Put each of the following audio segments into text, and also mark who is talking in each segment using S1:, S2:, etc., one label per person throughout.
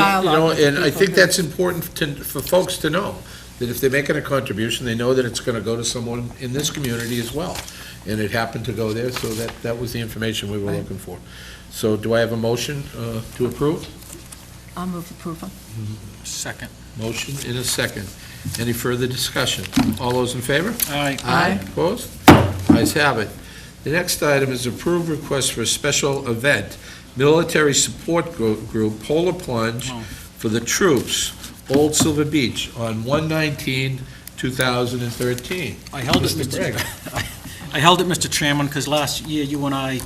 S1: how
S2: You know,
S1: long these
S2: and I
S1: people
S2: think
S1: can-
S2: that's important to, for folks to know, that if they're making a contribution, they know that it's gonna go to someone in this community as well. And it happened to go there, so that, that was the information we were
S1: Right.
S2: looking for. So do I have a motion, uh, to approve?
S1: I'll move approval.
S3: Second.
S2: Motion in a second. Any further discussion? All those in favor?
S3: Aye.
S1: Aye.
S2: Opposed? Ayes have it. The next item is approved request for a special event, military support gro- group Polar Plunge
S3: Oh.
S2: for the troops, Old Silver Beach, on 1/19/2013.
S3: I held it,
S2: Mr. Gregg.
S3: Mr. I held it, Mr. Chairman, because last year you and I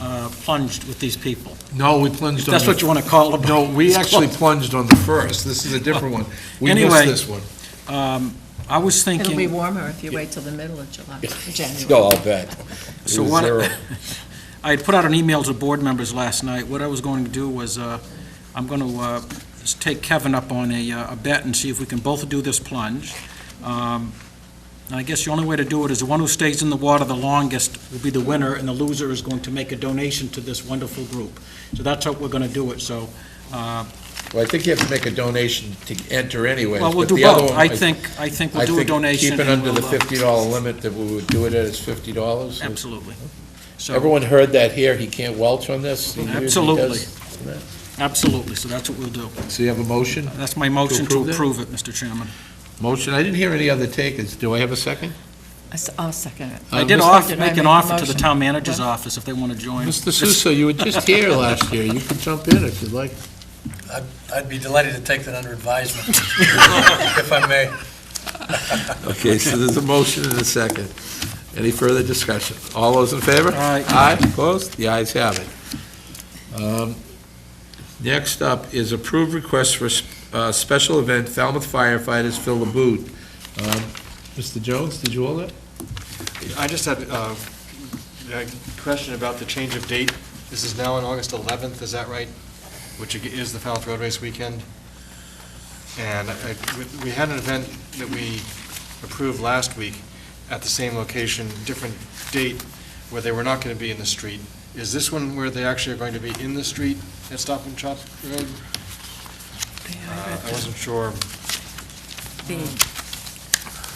S3: uh, plunged with these people.
S2: No, we plunged on the...
S3: That's what you want to call them.
S2: No, we actually plunged on the first. This is a different one. We missed
S3: Anyway.
S2: this one.
S3: Um, I was
S1: It'll be
S3: thinking,
S1: warmer if you wait till the middle of July, January.
S2: No, I'll bet.
S3: So
S2: It was
S3: what-
S2: zero.
S3: I had put out an email to board members last night. What I was going to do was, uh, I'm going to take Kevin up on a uh, a bet and see if we can both do this plunge. Um, and I guess the only way to do it is the one who stays in the water the longest will be the winner, and the loser is going to make a donation to this wonderful group. So that's how we're going to do it, so uh,
S2: Well, I think you have to make a donation to enter anyway.
S3: Well, we'll do both. I think, I think we'll do a donation.
S2: Keep it
S3: and
S2: under the
S3: we'll, uh,
S2: $50 limit that we would do it at is $50.
S3: Absolutely. So,
S2: Everyone heard that here, he can't welch on this? He usually
S3: Absolutely.
S2: does.
S3: absolutely, so that's what we'll do.
S2: So you have a motion?
S3: That's my motion to
S2: approve it?
S3: approve it, Mr. Chairman.
S2: Motion, I didn't hear any other takers, do I have a second?
S1: I s- I'll second it.
S3: I
S2: Uh,
S3: did
S2: Mr.
S3: offer,
S1: Did I
S3: make
S1: make a
S3: an offer to the
S1: motion?
S3: town manager's
S1: What?
S3: office if they want to join.
S2: Mr. Suso, you were just here last year, you can jump in if you'd like.
S4: I'd be delighted to take that under advisement, if I may.
S2: Okay, so there's a motion and a second. Any further discussion? All those in favor?
S3: Aye.
S2: Aye, opposed? The ayes have it. Um, Next up is approved request for s- uh, special event Falmouth firefighters fill the boot. Um, Mr. Jones, did you all that?
S5: I just had uh, a question about the change of date. This is now on August 11th, is that right? Which is the Falmouth Road Race weekend. And I- we- we had an event that we approved last week at the same location, different date, where they were not going to be in the street. Is this one where they actually are going to be in the street at Stop and Shop Road? Uh, I wasn't sure.
S1: The-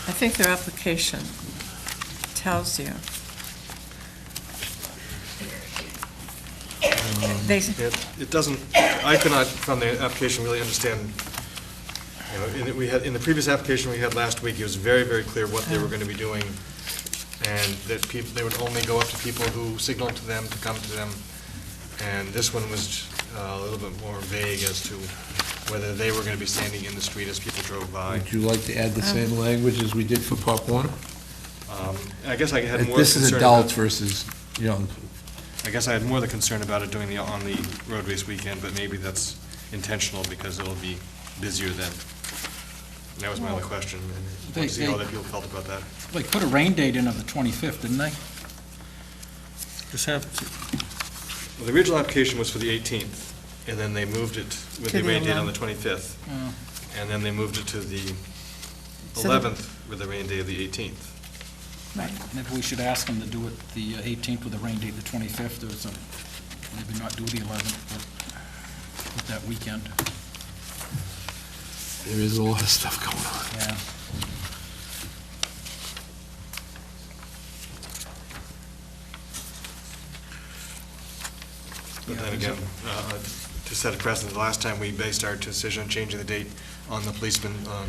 S1: I think their application tells you. They,
S5: It it doesn't, I could not, from the application, really understand, you know, in, it- we had, in the previous application we had last week, it was very, very clear what they were gonna be doing, and that people, they would only go up to people who signaled to them to come to them, and this one was uh, a little bit more vague as to whether they were gonna be standing in the street as people drove by.
S2: Would you like to add the same language as we did for Pop Warner?
S5: Um, I guess I had more
S2: This is
S5: concern about,
S2: adults versus young.
S5: I guess I had more the concern about it doing the, on the road race weekend, but maybe that's intentional, because it'll be busier then. That was my only question, and I
S3: They-
S5: wanted to see how
S3: they-
S5: other people felt about that.
S3: They put a rain date in of the 25th, didn't they? Just have,
S5: Well, the original application was for the 18th, and then they moved it with
S1: To
S5: the
S1: the
S5: rain date on the 25th, and then they moved it to the
S1: So the-
S5: 11th with the rain day of the 18th.
S3: maybe we should ask them to do it the 18th with a rain date, the 25th, or some, maybe not do the 11th, but with that weekend.
S2: There is a lot of stuff going on.
S3: Yeah.
S5: But
S3: Yeah,
S5: then
S3: is it-
S5: again, uh, to set a precedent, the last time we based our decision on changing the date on the policeman, on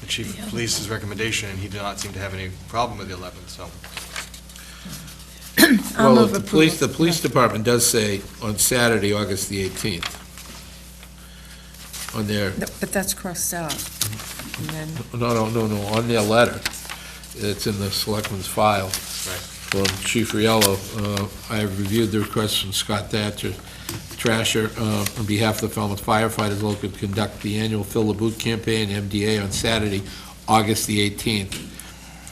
S5: the chief of police's recommendation, and he did not seem to have any problem with the 11th, so.
S1: I'll
S2: Well, if
S1: move
S2: the police, the
S1: approval.
S2: police department does say on Saturday, August the 18th, on their,
S1: No, But that's crossed out. And then,
S2: no, no, no, no, on their letter, it's in the selectman's file. From Chief Riello, uh, I have reviewed the request from Scott Thatcher, Trasher, uh, on behalf of the Falmouth firefighters local to conduct the annual Fill the Boot campaign, MDA, on Saturday, August the 18th.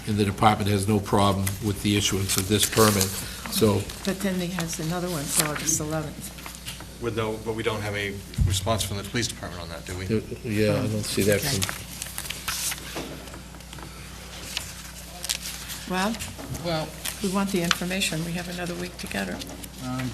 S2: And the department has no problem with the issuance of this permit. So uh,
S1: but then he has another one for August 11th.
S5: With no, but we don't have a response from the police department on that, do we?
S2: Yeah, Uh, I don't see that from,
S1: Rob,
S3: Well,
S1: we want the information. We have another week to get it.
S3: um,